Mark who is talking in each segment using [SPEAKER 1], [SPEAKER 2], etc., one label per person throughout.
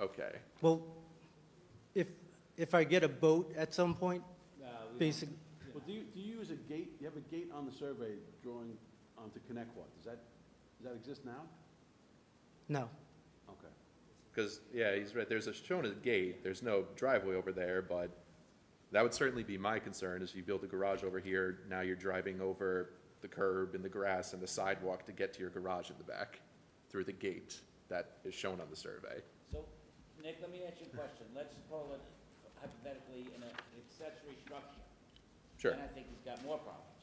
[SPEAKER 1] Okay,
[SPEAKER 2] Well, if, if I get a boat at some point, basic,
[SPEAKER 3] Well, do you, do you use a gate, you have a gate on the survey drawing onto Connectquod, does that, does that exist now?
[SPEAKER 2] no,
[SPEAKER 3] Okay.
[SPEAKER 1] because, yeah, he's right, there's a, shown a gate, there's no driveway over there, but that would certainly be my concern, is you build a garage over here, now you're driving over the curb and the grass and the sidewalk to get to your garage in the back, through the gate that is shown on the survey.
[SPEAKER 4] So, Nick, let me ask you a question. Let's call it hypothetically an accessory structure.
[SPEAKER 1] Sure.
[SPEAKER 4] And I think he's got more problems.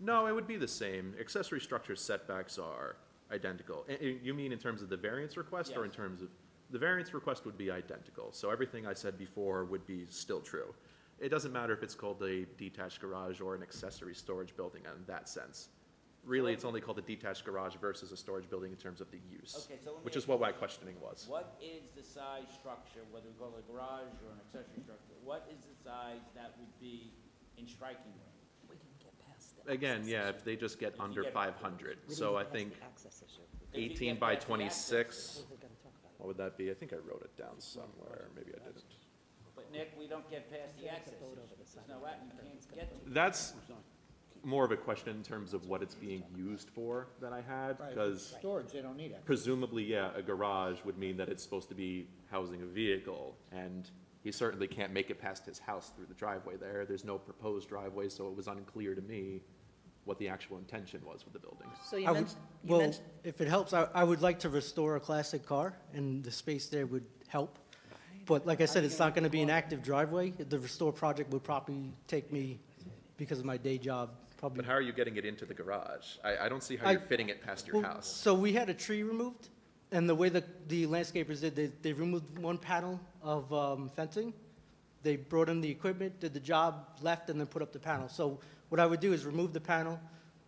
[SPEAKER 1] No, it would be the same. Accessory structure setbacks are identical. And- and You mean in terms of the variance request or in
[SPEAKER 4] Yes.
[SPEAKER 1] terms of, the variance request would be identical. So everything I said before would be still true. It doesn't matter if it's called a detached garage or an accessory storage building in that sense. Really, it's only called a detached garage versus a storage building in terms of the use,
[SPEAKER 4] Okay, so let me
[SPEAKER 1] which
[SPEAKER 4] ask
[SPEAKER 1] is what my questioning was.
[SPEAKER 4] What is the size structure, whether we call it a garage or an accessory structure? What is the size that would be in striking range?
[SPEAKER 5] We didn't get past that.
[SPEAKER 1] Again, yeah, if they just get
[SPEAKER 4] If you
[SPEAKER 1] under
[SPEAKER 4] get-
[SPEAKER 1] five hundred,
[SPEAKER 5] We didn't
[SPEAKER 1] so
[SPEAKER 5] get
[SPEAKER 1] I
[SPEAKER 5] past the
[SPEAKER 1] think
[SPEAKER 5] Access issue.
[SPEAKER 4] If you
[SPEAKER 1] eighteen
[SPEAKER 4] get
[SPEAKER 1] by
[SPEAKER 4] past the access,
[SPEAKER 1] twenty-six,
[SPEAKER 5] We were gonna talk about it.
[SPEAKER 1] what would that be? I think I wrote it down somewhere, maybe I didn't.
[SPEAKER 4] But Nick, we don't get past the
[SPEAKER 5] Yeah,
[SPEAKER 4] access
[SPEAKER 5] it's a boat over
[SPEAKER 4] issue.
[SPEAKER 5] the
[SPEAKER 4] There's
[SPEAKER 5] side.
[SPEAKER 4] no, out- you can't get to. it.
[SPEAKER 1] That's more of a question in terms of what it's being used for that I had, because
[SPEAKER 6] Storage, they don't need it.
[SPEAKER 1] presumably, yeah, a garage would mean that it's supposed to be housing a vehicle, and he certainly can't make it past his house through the driveway there. There's no proposed driveway, so it was unclear to me what the actual intention was with the building.
[SPEAKER 5] So you
[SPEAKER 2] I would,
[SPEAKER 5] mentioned, you
[SPEAKER 2] well,
[SPEAKER 5] mentioned,
[SPEAKER 2] if it helps, I, I would like to restore a classic car, and the space there would help. But like I said, it's not gonna be an active driveway, the restore project would probably take me, because of my day job, probably.
[SPEAKER 1] But how are you getting it into the garage? I, I don't see how you're
[SPEAKER 2] I-
[SPEAKER 1] fitting it past your
[SPEAKER 2] Well,
[SPEAKER 1] house.
[SPEAKER 2] So we had a tree removed, and the way the, the landscapers did, they, they removed one panel of um, fencing. They brought in the equipment, did the job, left, and then put up the panel. So what I would do is remove the panel,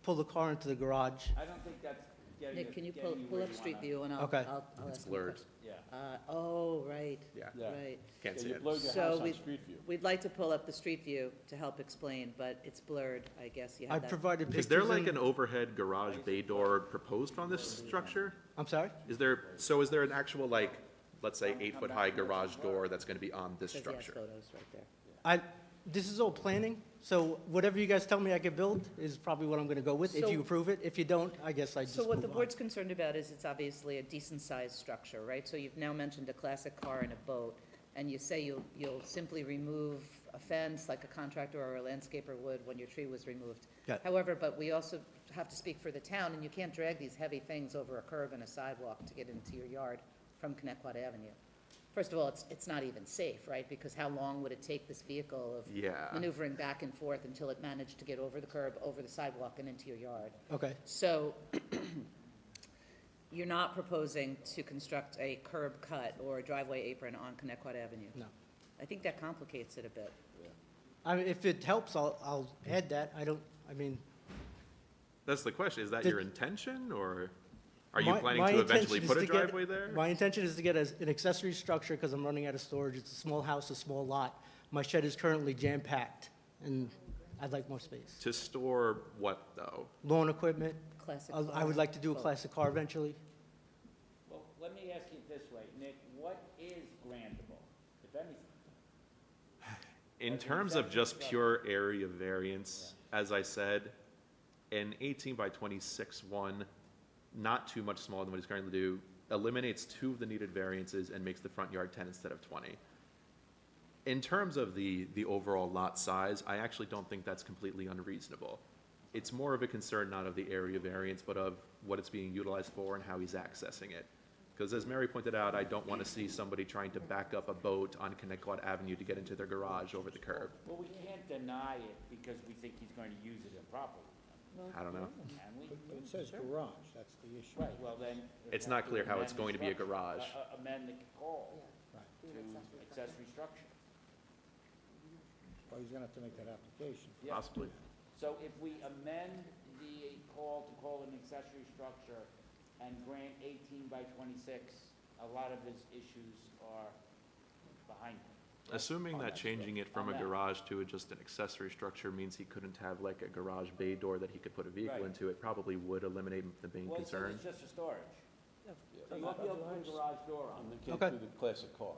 [SPEAKER 2] pull the car into the garage.
[SPEAKER 4] I don't think that's getting you,
[SPEAKER 5] Nick, can
[SPEAKER 4] getting you
[SPEAKER 5] you pull,
[SPEAKER 4] where you
[SPEAKER 5] pull
[SPEAKER 4] want
[SPEAKER 5] up Street View and I'll,
[SPEAKER 2] Okay.
[SPEAKER 5] I'll, I'll ask.
[SPEAKER 1] It's
[SPEAKER 5] him a
[SPEAKER 1] blurred,
[SPEAKER 5] question.
[SPEAKER 4] Yeah.
[SPEAKER 5] Uh, oh, right,
[SPEAKER 1] yeah,
[SPEAKER 3] Yeah.
[SPEAKER 5] right.
[SPEAKER 1] can't
[SPEAKER 3] Yeah,
[SPEAKER 1] see
[SPEAKER 3] you
[SPEAKER 1] it.
[SPEAKER 3] blowed your
[SPEAKER 5] So
[SPEAKER 3] house on
[SPEAKER 5] we-
[SPEAKER 3] Street View.
[SPEAKER 5] We'd like to pull up the Street View to help explain, but it's blurred, I guess you
[SPEAKER 2] I
[SPEAKER 5] have that.
[SPEAKER 2] provided pictures.
[SPEAKER 1] Is there like
[SPEAKER 2] and-
[SPEAKER 1] an overhead garage bay door proposed on this structure?
[SPEAKER 2] I'm sorry?
[SPEAKER 1] Is there, so is there an actual, like, let's say, eight-foot-high garage door that's gonna be on this
[SPEAKER 5] Says he has
[SPEAKER 1] structure?
[SPEAKER 5] photos right there.
[SPEAKER 2] I, this is all planning, so whatever you guys tell me I can build is probably what I'm gonna go with, if
[SPEAKER 5] So-
[SPEAKER 2] you approve it. If you don't, I guess I just
[SPEAKER 5] So what the
[SPEAKER 2] move on.
[SPEAKER 5] board's concerned about is it's obviously a decent-sized structure, right? So you've now mentioned a classic car and a boat, and you say you'll, you'll simply remove a fence like a contractor or a landscaper would when your tree was removed.
[SPEAKER 2] Yeah.
[SPEAKER 5] However, but we also have to speak for the town, and you can't drag these heavy things over a curb and a sidewalk to get into your yard from Connecticut Avenue. First of all, it's, it's not even safe, right? Because how long would it take this vehicle of
[SPEAKER 1] Yeah.
[SPEAKER 5] maneuvering back and forth until it managed to get over the curb, over the sidewalk, and into your yard?
[SPEAKER 2] Okay,
[SPEAKER 5] So you're not proposing to construct a curb cut or a driveway apron on Connecticut Avenue?
[SPEAKER 2] no.
[SPEAKER 5] I think that complicates it a bit.
[SPEAKER 2] I mean, if it helps, I'll, I'll add that. I don't, I mean,
[SPEAKER 1] That's the question, is that
[SPEAKER 2] The-
[SPEAKER 1] your intention, or are you
[SPEAKER 2] My-
[SPEAKER 1] planning
[SPEAKER 2] my
[SPEAKER 1] to eventually
[SPEAKER 2] intention is
[SPEAKER 1] put a
[SPEAKER 2] to get-
[SPEAKER 1] driveway there?
[SPEAKER 2] My intention is to get as- an accessory structure, because I'm running out of storage. It's a small house, a small lot. My shed is currently jam-packed, and I'd like more space.
[SPEAKER 1] To store what, though?
[SPEAKER 2] Lawn equipment,
[SPEAKER 5] Classic.
[SPEAKER 2] I I would like to do a
[SPEAKER 5] car.
[SPEAKER 2] classic car eventually.
[SPEAKER 4] Well, let me ask you it this way, Nick, what is grandable, if anything?
[SPEAKER 1] In
[SPEAKER 4] That's an
[SPEAKER 1] terms of
[SPEAKER 4] exception
[SPEAKER 1] just
[SPEAKER 4] structure.
[SPEAKER 1] pure area variance, as I said, an eighteen by twenty-six one, not too much smaller than what he's currently do, eliminates two of the needed variances and makes the front yard ten instead of twenty. In terms of the, the overall lot size, I actually don't think that's completely unreasonable. It's more of a concern not of the area variance, but of what it's being utilized for and how he's accessing it. Because as Mary pointed out, I don't want to see somebody trying to back up a boat on Connecticut Avenue to get into their garage over the curb.
[SPEAKER 4] Well, we can't deny it because we think he's going to use it improperly,
[SPEAKER 1] I don't know.
[SPEAKER 4] can we?
[SPEAKER 6] It says garage, that's the issue.
[SPEAKER 4] Right, well then. we'd
[SPEAKER 1] It's
[SPEAKER 4] have
[SPEAKER 1] not
[SPEAKER 4] to
[SPEAKER 1] clear how it's
[SPEAKER 4] amend the
[SPEAKER 1] going to be a
[SPEAKER 4] structure-
[SPEAKER 1] garage.
[SPEAKER 4] a- a- Amend the call
[SPEAKER 6] Right.
[SPEAKER 4] to accessory structure.
[SPEAKER 6] Well, he's gonna have to make that application.
[SPEAKER 4] Yeah. So if we amend the call to call an accessory structure and grant eighteen by twenty-six, a lot of his issues are behind him.
[SPEAKER 1] Assuming that changing it from a
[SPEAKER 4] On that.
[SPEAKER 1] garage to just an accessory structure means he couldn't have like a garage bay door that he could put a vehicle
[SPEAKER 4] Right.
[SPEAKER 1] into, it probably would eliminate the main
[SPEAKER 4] Well, he said
[SPEAKER 1] concern.
[SPEAKER 4] it's just for storage.
[SPEAKER 3] You have to be able to put a garage door on, they can't
[SPEAKER 4] Okay. Oh.
[SPEAKER 3] do the classic car.